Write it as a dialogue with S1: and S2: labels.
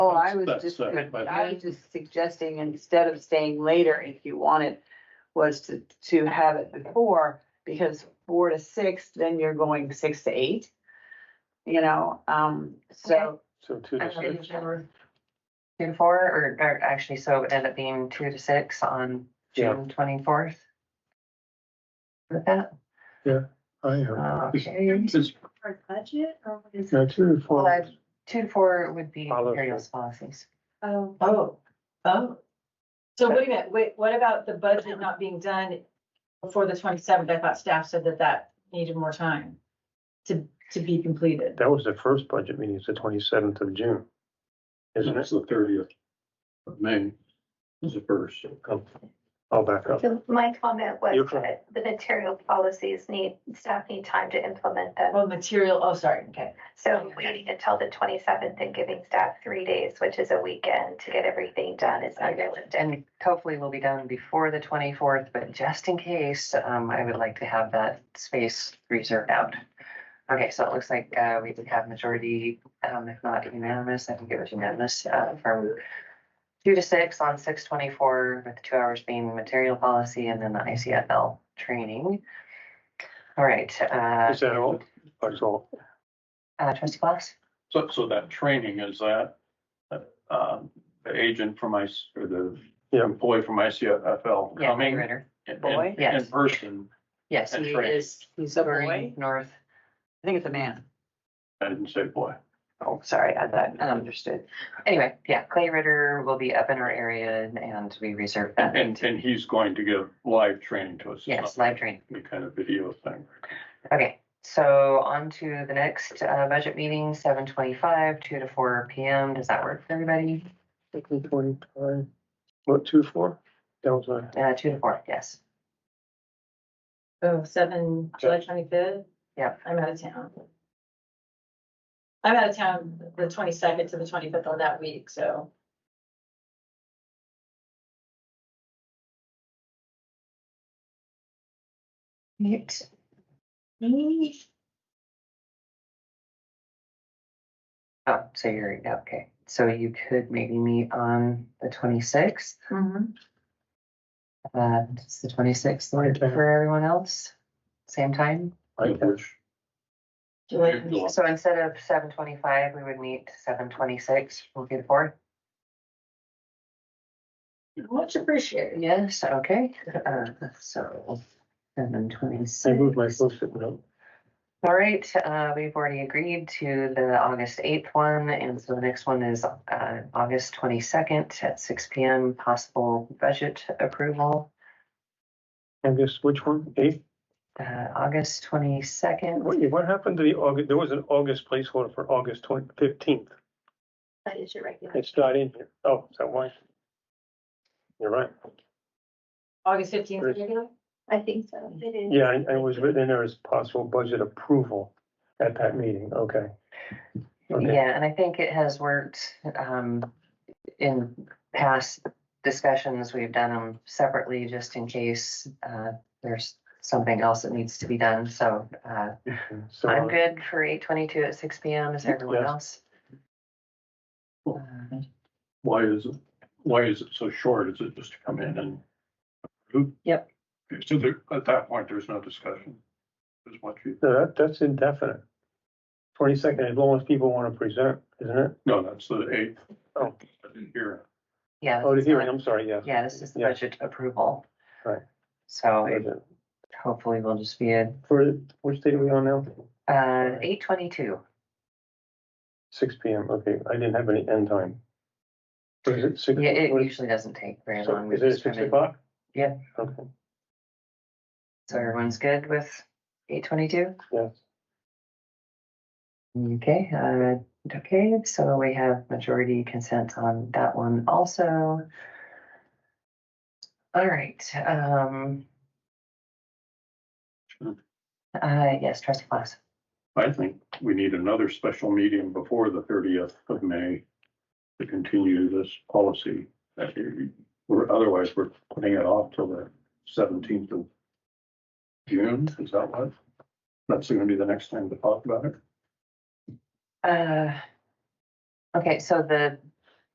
S1: Oh, I was
S2: That's-
S1: just,
S2: that's my-
S1: I was just suggesting instead of saying later, if you want it, was to, to have it before, because four to six, then you're going six to eight. You know, um, so,
S2: So two to
S3: Actually,
S2: six.
S3: Two to four, or, or actually, so it would end up being two to six on
S2: Yeah.
S3: June twenty-fourth. With that, uh,
S2: I am.
S3: okay,
S2: It's-
S4: Our budget or what is
S2: no,
S4: it?
S2: two to four.
S3: Well, two to four would be
S2: Follow
S3: materials policies.
S4: Oh,
S5: Oh, oh. So
S3: Okay.
S5: wait a minute, wait, what about the budget not being done before the twenty-seventh? I thought staff said that that needed more time to, to be completed.
S6: That was the first budget meeting, it's the twenty-seventh of June, isn't it?
S2: It's the thirtieth of May. Is the first.
S6: Oh, I'll back up.
S7: So my comment
S6: Your
S7: was
S6: comment.
S7: that the material policies need, staff need time to implement them.
S5: Well, material, oh, sorry, okay.
S7: So waiting until the twenty-seventh and giving staff three days, which is a weekend, to get everything done is unrealistic.
S3: And hopefully will be done before the twenty-fourth, but just in case, um, I would like to have that space reserved out. Okay, so it looks like, uh, we did have majority, um, if not unanimous, I think it was unanimous, uh, from two to six on six twenty-four, with two hours being material policy and then the ICFL training. All right, uh,
S6: Is that all? That's all.
S3: uh, trustee Fox?
S2: So, so that training is that, um, the agent from my, or the
S6: Yeah.
S2: employee from ICFL
S3: Yeah,
S2: coming in,
S3: moderator.
S1: Boy?
S2: in, in
S3: Yes.
S2: person.
S3: Yes,
S2: And
S3: he
S2: training.
S3: is
S1: he's a boy,
S3: Green North
S1: I think it's a man.
S2: I didn't say boy.
S3: Oh, sorry, I thought, I understood. Anyway, yeah, Clay Ritter will be up in our area and- and we reserve that.
S2: And, and he's going to give live training to us. It's
S3: Uh, Yes,
S2: not
S3: live training.
S2: Any kind of video thing.
S3: Okay, so on to the next uh, budget meeting, seven twenty-five, two to four P M. Does that work for everybody?
S6: Twenty-five, what, two, four? That was a,
S3: Uh, two to four, yes.
S5: So Oh, seven, July twenty-fifth?
S3: Yep.
S5: I'm out of town. I'm out of town the twenty-second to the twenty-fifth on that week, so.
S3: Right. Oh, so you're, okay, so you could maybe meet on the twenty-sixth, uh, it's the twenty-sixth
S6: Okay.
S3: for everyone else, same time?
S2: I wish.
S5: July
S2: Good luck.
S3: So instead of seven twenty-five, we would meet seven twenty-six, we'll get four.
S5: Much appreciated.
S3: Yes, okay, uh, so seven twenty-six.
S6: I moved my post-it note.
S3: All right, uh, we've already agreed to the August eighth one, and so the next one is, uh, August twenty-second at six P M, possible budget approval.
S6: I guess, which one? Eighth?
S3: Uh, August twenty-second,
S6: What, what happened to the August, there was an August placeholder for August twenty, fifteenth.
S7: That is your regular.
S6: It's not in here. Oh, is that why? You're right.
S5: August fifteenth,
S6: First.
S5: regular?
S7: I think so. It is.
S6: Yeah, I- I was written in there as possible budget approval at that meeting, okay. Okay.
S3: yeah, and I think it has worked, um, in past discussions, we've done them separately just in case uh, there's something else that needs to be done. So uh,
S6: So,
S3: I'm
S6: uh,
S3: good for eight twenty-two at six P M. Is everyone
S6: Yeah.
S3: else? Uh,
S2: Cool. Why is, it? why is it so short? Is it just to come in and? approve?
S3: Yep.
S2: So there, at that point, there's no discussion. Is what you,
S6: no, that, that's indefinite. Twenty-second, as long as people want to present, isn't it?
S2: no, that's the eighth.
S6: Oh.
S2: I didn't hear it.
S3: Yeah.
S6: Oh, the
S3: this is
S6: hearing,
S3: not-
S6: I'm sorry, yes.
S3: Yeah, this is the
S6: Yeah.
S3: budget approval.
S6: Right.
S3: So it
S6: Budget.
S3: hopefully we will just be at
S6: For, which date are we on now?
S3: uh, eight twenty-two.
S6: Six P M, okay, I didn't have any end time. Or Is it six?
S3: Yeah, it
S6: what is-
S3: usually doesn't take very
S6: so
S3: long. We
S6: Is it
S3: just come
S6: six
S3: in.
S6: o'clock?
S3: Yeah.
S6: Okay,
S3: So everyone's good with eight twenty-two?
S6: yes.
S3: Okay, uh, okay, so we have majority consent on that one also. All right, um.
S2: Sure.
S3: Uh, yes, trustee class.
S2: I think we need another special meeting before the thirtieth of May to continue this policy. That you- we're- Otherwise, we're putting it off till the seventeenth of June, is that what? That's gonna be the next time to talk about it.
S3: Uh. Okay, so the,